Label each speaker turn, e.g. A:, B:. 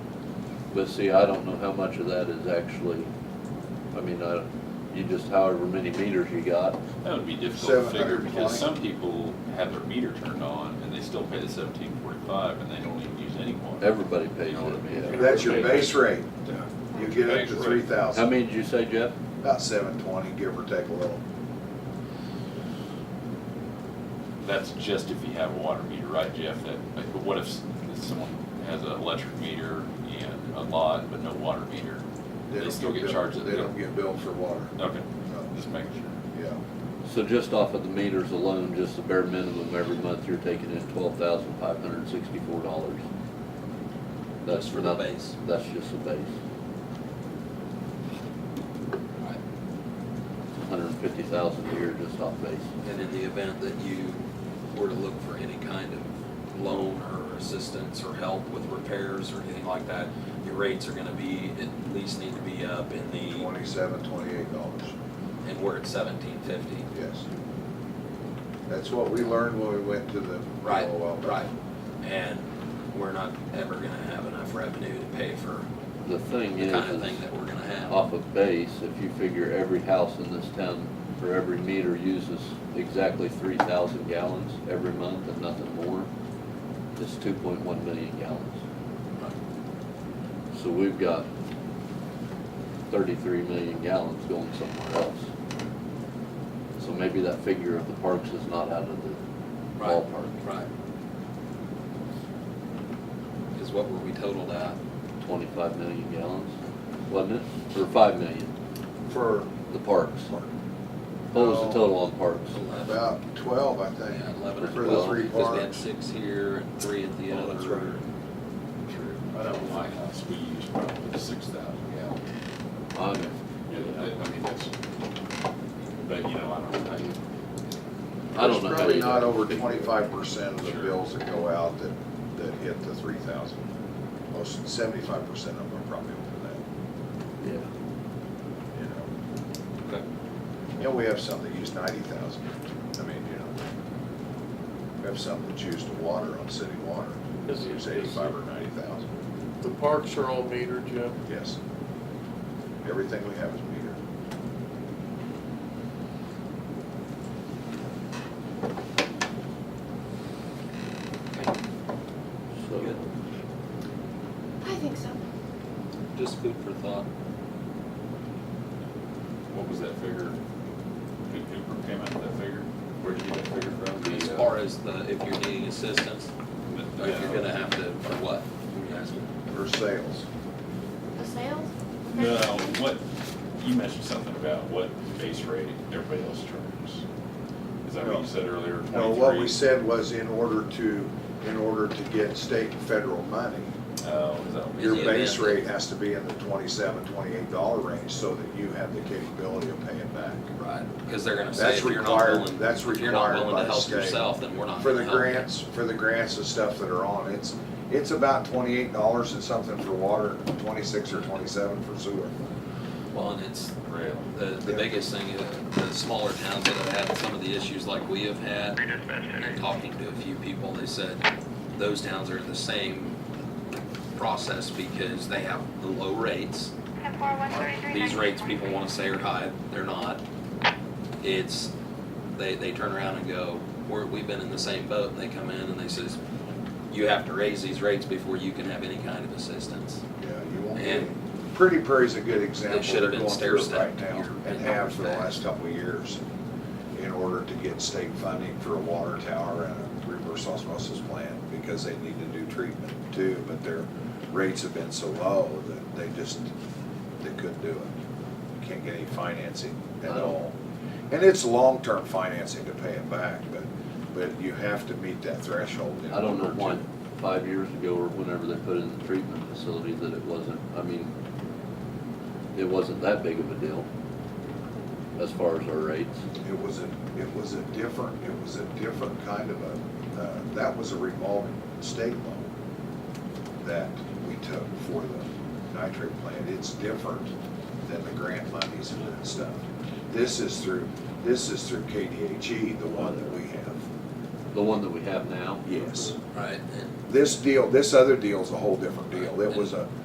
A: But see, I don't know how much of that is actually, I mean, I, you just however many meters you got.
B: That would be difficult to figure
C: 720.
B: because some people have their meter turned on and they still pay the seventeen forty-five and they don't even use any water.
A: Everybody pays
B: You know what I mean?
A: it, yeah.
C: That's your base rate.
B: Yeah.
C: You get up to
B: Base rate.
C: three
A: How
C: thousand,
A: many did you say, Jeff?
C: about seven twenty, give or take a little.
B: That's just if you have a water meter, right, Jeff? That, like, but what if s- if someone has an electric meter and a lot, but no water meter?
C: They
B: They
C: don't
B: still get
C: billed-
B: charged at
C: They don't
B: the-
C: get billed for water,
B: Okay,
C: no,
B: just making sure.
C: yeah.
A: So just off of the meters alone, just the bare minimum every month, you're taking in twelve thousand five hundred and sixty-four dollars. That's
D: for the
A: not-
D: base.
A: That's just the base.
D: Right.
A: Hundred and fifty thousand a year just off base.
D: And in the event that you were to look for any kind of loan or assistance or help with repairs or anything like that, your rates are gonna be, at least need to be up in
B: E.
D: the,
C: Twenty-seven, twenty-eight dollars,
D: and we're at seventeen fifty.
C: yes. That's what we learned when we went to the.
D: Right,
C: LOL.
D: right. And we're not ever gonna have enough revenue to pay for
A: The thing
D: the
A: is,
D: kind of
A: is
D: thing that we're gonna have.
A: off of base, if you figure every house in this town for every meter uses exactly three thousand gallons every month and nothing more, it's two point one million gallons. So we've got thirty-three million gallons going somewhere else. So maybe that figure of the parks is not out of the
D: Right.
A: ballpark.
D: Right. Cause what were we totaled at?
A: Twenty-five million gallons, wasn't it? Or five million,
C: For
A: the parks. What was the
C: No.
A: total on parks?
D: Eleven.
C: about twelve, I think.
D: Yeah, eleven or
C: For the
D: twelve,
C: three
D: because they had
C: parks.
D: six here and three at the
B: Oh,
D: other.
B: that's I know in my house, we use probably six thousand gallons.
A: I'm
B: Yeah, I I mean, that's, but you know, I don't, I,
A: I don't know
C: It's
A: how
C: probably
A: you-
C: not over twenty-five percent of the
B: Sure.
C: bills that go out that, that hit the three thousand. Most, seventy-five percent of them are probably over that,
A: Yeah,
C: you know.
D: Okay.
C: You know, we have some that use ninety thousand, I mean, you know. We have some that use the water on city water, that
E: Is it- is
C: use
E: it-
C: eighty-five or ninety thousand,
E: The parks are all metered, Jim.
C: yes. Everything we have is metered.
A: so,
D: Good.
F: I think so.
D: Just food for thought.
B: what was that figure? Who, who came up with that figure? Where'd you get that figure from? The,
D: As
B: uh,
D: far as the, if you're needing assistance,
B: the-
D: or if you're
B: yeah.
D: gonna have to, or what? You guys-
C: For sales,
F: The sales?
B: No, what, you mentioned something about what base rate everybody else charges. Is that what you said earlier, twenty-three?
C: no, what we said was in order to, in order to get state and federal money,
B: Oh, is that,
D: In
C: Your
D: the
C: base
D: event
C: rate has to be in the twenty-seven, twenty-eight dollar range so that you have the capability of paying back.
D: Right, because they're gonna say
C: That's
D: if you're not
C: required-
D: willing,
C: that's
D: if you're not
C: required
D: willing
C: by
D: to
C: the
D: help
C: state.
D: yourself, then we're not
C: For
D: gonna
C: the
D: help. you.
C: grants, for the grants and stuff that are on, it's, it's about twenty-eight dollars and something for water, twenty-six or twenty-seven for sewer.
D: Well, and it's,
B: Really?
D: the, the
C: Yeah.
D: biggest thing, is the smaller towns that have had some of the issues like we have had, and talking to a few people, they said those towns are in the same process because they have the low rates. These rates people wanna say are high, they're not. It's, they, they turn around and go, we're, we've been in the same boat, and they come in and they says, you have to raise these rates before you can have any kind of assistance.
C: Yeah, you won't get,
D: And-
C: Pretty Prairie's a good example.
D: They should have
C: They're
D: been
C: going through it
D: stair-stepped
C: Right now,
D: here
C: and
D: in
C: have for the
D: North Bay.
C: last couple of years, in order to get state funding for a water tower and a reverse osmosis plant, because they need to do treatment too, but their rates have been so low that they just, they couldn't do it. You Can't get any financing at
A: Wow.
C: all. And it's long-term financing to pay it back, but, but you have to meet that threshold. in
A: I don't know
C: order to-
A: why, five years ago or whenever they put in the treatment facility, that it wasn't, I mean, it wasn't that big of a deal as far as our rates.
C: It was a, it was a different, it was a different kind of a, uh, that was a revolving state loan that we took for the nitrate plant. It's different than the grant monies and that stuff. This is through, this is through KDHE, E, the one that we have.
A: The one that we have now?
C: Yes.
D: Right, and
C: This deal, this other deal is a whole different deal. It was a,